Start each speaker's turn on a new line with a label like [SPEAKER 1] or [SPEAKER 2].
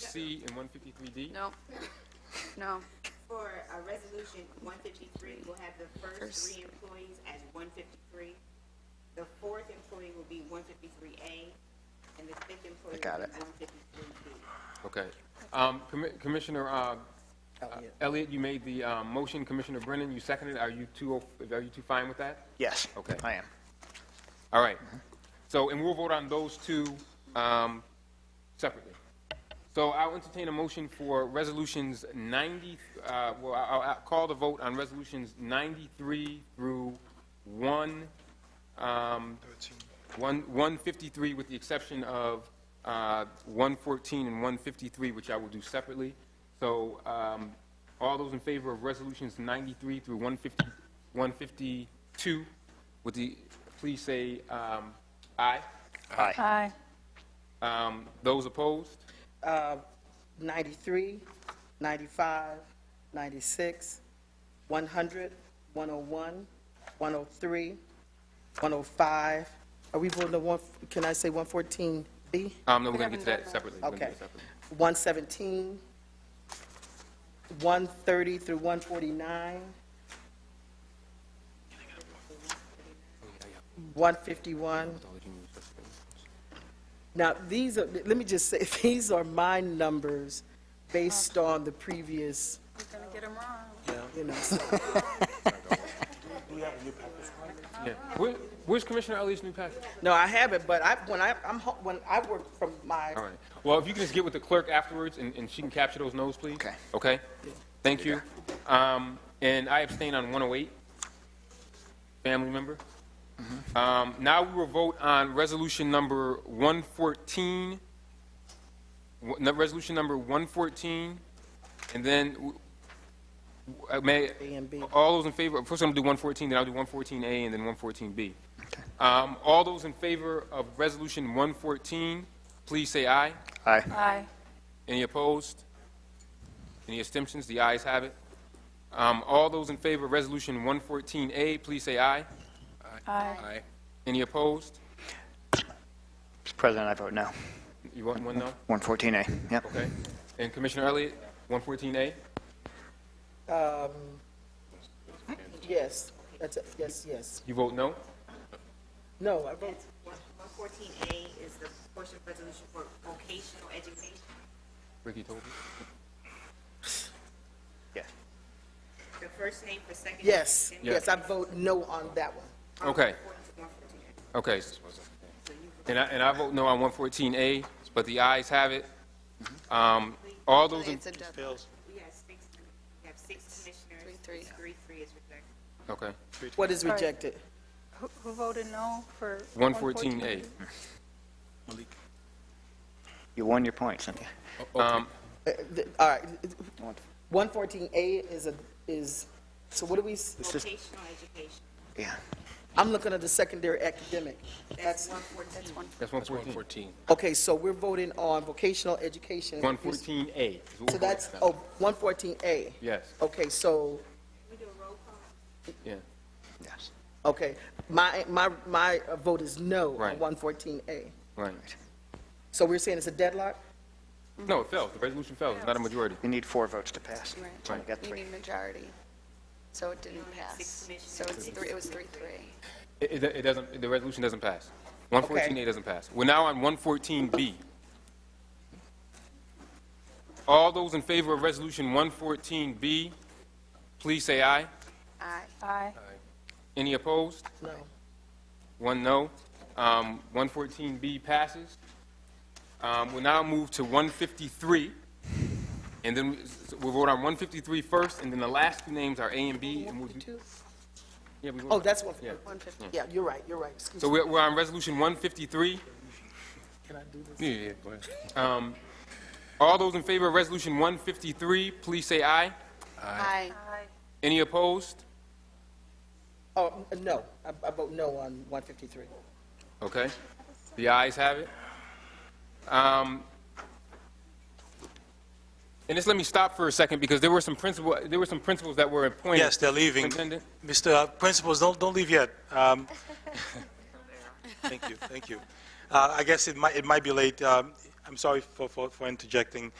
[SPEAKER 1] C and one fifty-three D?
[SPEAKER 2] No, no.
[SPEAKER 3] For uh, Resolution 153, we'll have the
[SPEAKER 2] First
[SPEAKER 3] first three employees as 153. The fourth employee will be 153A, and the fifth employee
[SPEAKER 4] got
[SPEAKER 3] will
[SPEAKER 4] it.
[SPEAKER 3] be 153B.
[SPEAKER 1] Okay. Um, Commi- Commissioner, uh,
[SPEAKER 4] Elliott.
[SPEAKER 1] Elliot, you made the, um, motion. Commissioner Brennan, you seconded. it. Are you two, are you two fine with that?
[SPEAKER 4] Yes.
[SPEAKER 1] Okay.
[SPEAKER 4] I am.
[SPEAKER 1] All right. So, and we'll vote on those two, um, separately. So I'll entertain a motion for resolutions ninety, uh, well, I'll, I'll call the vote on resolutions ninety-three through one, um, one, one fifty-three, with the exception of, uh, one fourteen and one fifty-three, which I will do separately. So, um, all those in favor of resolutions ninety-three through one fifty, one fifty-two, with the, please say, um, aye.
[SPEAKER 4] Aye.
[SPEAKER 2] Aye.
[SPEAKER 1] Um, those opposed?
[SPEAKER 5] Uh, 93, 95, 96, 100, 101, 103, 105. Are we voting on one, can I say 114B?
[SPEAKER 1] Um, no, we're
[SPEAKER 2] We haven't
[SPEAKER 1] gonna get to
[SPEAKER 2] done
[SPEAKER 1] that
[SPEAKER 2] that.
[SPEAKER 1] separately. We're gonna
[SPEAKER 5] Okay.
[SPEAKER 1] do it separately.
[SPEAKER 5] 117, 130 through 149, 151, Now, these are, let me just say, these are my numbers based on the previous,
[SPEAKER 2] You're gonna get them wrong.
[SPEAKER 5] you know, so
[SPEAKER 1] Yeah. Where, where's Commissioner Elliott's new package?
[SPEAKER 5] no, I haven't, but I, when I, I'm, ho- when I work from my,
[SPEAKER 1] All right. Well, if you can just get with the clerk afterwards and, and she can capture those notes, please.
[SPEAKER 4] Okay.
[SPEAKER 1] Okay? Thank you. Um, and I abstain on 108. Family member. Um, now we will vote on resolution number 114, w- no, resolution number 114, and then, w- w- uh, may,
[SPEAKER 5] A and B.
[SPEAKER 1] all those in favor, first I'm gonna do 114, then I'll do 114A and then 114B. Um, all those in favor of resolution 114, please say aye.
[SPEAKER 4] Aye.
[SPEAKER 2] Aye.
[SPEAKER 1] Any opposed? Any abstentions? The ayes have it. Um, All those in favor of Resolution 114A, please say aye.
[SPEAKER 2] Aye.
[SPEAKER 1] Aye. Any opposed?
[SPEAKER 4] Mr. President, I vote no.
[SPEAKER 1] You want one no?
[SPEAKER 4] 114A. Yep.
[SPEAKER 1] Okay. And Commissioner Elliott, 114A?
[SPEAKER 5] yes, that's, it. yes, yes.
[SPEAKER 1] You vote no?
[SPEAKER 5] No, I vote,
[SPEAKER 3] That's one- 114A is the portion of resolution for vocational education.
[SPEAKER 1] Ricky told me.
[SPEAKER 4] Yeah.
[SPEAKER 3] The first name for second.
[SPEAKER 5] yes,
[SPEAKER 3] and
[SPEAKER 5] yes, I vote no on that one.
[SPEAKER 3] on
[SPEAKER 1] Okay.
[SPEAKER 3] 114A.
[SPEAKER 1] Okay. And I, and I vote no on 114A, but the ayes have it. Um, All those, in-
[SPEAKER 6] It's a deadline.
[SPEAKER 3] We have six, we have six commissioners.
[SPEAKER 6] Three, three.
[SPEAKER 3] Three, three is rejected.
[SPEAKER 1] okay.
[SPEAKER 5] What is
[SPEAKER 2] Right.
[SPEAKER 5] rejected?
[SPEAKER 2] Who who voted no for?
[SPEAKER 1] 114A.
[SPEAKER 4] You won your point, Cynthia.
[SPEAKER 1] Um,
[SPEAKER 5] Uh, th- All right, 114A is a, is, so what do we, s-
[SPEAKER 4] It's just-
[SPEAKER 3] Vocational education,
[SPEAKER 4] Yeah.
[SPEAKER 5] I'm looking at the secondary academic.
[SPEAKER 3] that's
[SPEAKER 5] That's,
[SPEAKER 3] 114.
[SPEAKER 1] That's 114.
[SPEAKER 5] okay, so we're voting on vocational education.
[SPEAKER 1] 114A. is what we're
[SPEAKER 5] So
[SPEAKER 1] voting
[SPEAKER 5] that's,
[SPEAKER 1] on.
[SPEAKER 5] oh, 114A.
[SPEAKER 1] Yes,
[SPEAKER 5] Okay, so,
[SPEAKER 3] We do a roll call?
[SPEAKER 1] yeah.
[SPEAKER 4] Yes.
[SPEAKER 5] okay, my, my, my vote is no
[SPEAKER 1] Right.
[SPEAKER 5] on 114A.
[SPEAKER 1] Right.
[SPEAKER 5] So we're saying it's a deadlock?
[SPEAKER 1] No, it failed. The resolution failed. It's not a majority.
[SPEAKER 4] You need four votes to pass.
[SPEAKER 6] Right.
[SPEAKER 4] Only got
[SPEAKER 6] You
[SPEAKER 4] three.
[SPEAKER 6] need majority. So it didn't
[SPEAKER 3] six
[SPEAKER 6] pass.
[SPEAKER 3] commissioners.
[SPEAKER 6] So it's three, it was three, three.
[SPEAKER 1] It, it- it doesn't, the resolution doesn't pass. 114A doesn't pass. We're now on 114B. All those in favor of Resolution 114B, please say aye.
[SPEAKER 6] Aye.
[SPEAKER 2] Aye.
[SPEAKER 1] Any opposed?
[SPEAKER 5] No.
[SPEAKER 1] One no. Um, 114B passes. Um, We'll now move to 153, and then we- we'll vote on 153 first, and then the last two names are A and B, and we'll do... Yeah, we vote
[SPEAKER 5] Oh,
[SPEAKER 1] on-
[SPEAKER 5] that's one,
[SPEAKER 1] Yeah.
[SPEAKER 6] One fifty.
[SPEAKER 5] yeah, you're right, you're right, excuse
[SPEAKER 1] So
[SPEAKER 5] me.
[SPEAKER 1] we're, we're on resolution one fifty-three. Can I do this? Yeah, yeah, go ahead. Um, all those in favor of resolution one fifty-three, please say aye.
[SPEAKER 6] Aye.
[SPEAKER 1] Any opposed?
[SPEAKER 5] Oh, n- no, I I vote no on 153.
[SPEAKER 1] Okay, the ayes have it. Um, and just let me stop for a second, because there were some principle, there were some principles that were appointed.
[SPEAKER 7] Yes, they're leaving.
[SPEAKER 1] Superintendent?
[SPEAKER 7] Mr. Principals, don't, don't leave yet. Um, Thank you, thank you. Uh, I guess it might, it might be late. Um, I'm sorry for, for, for interjecting.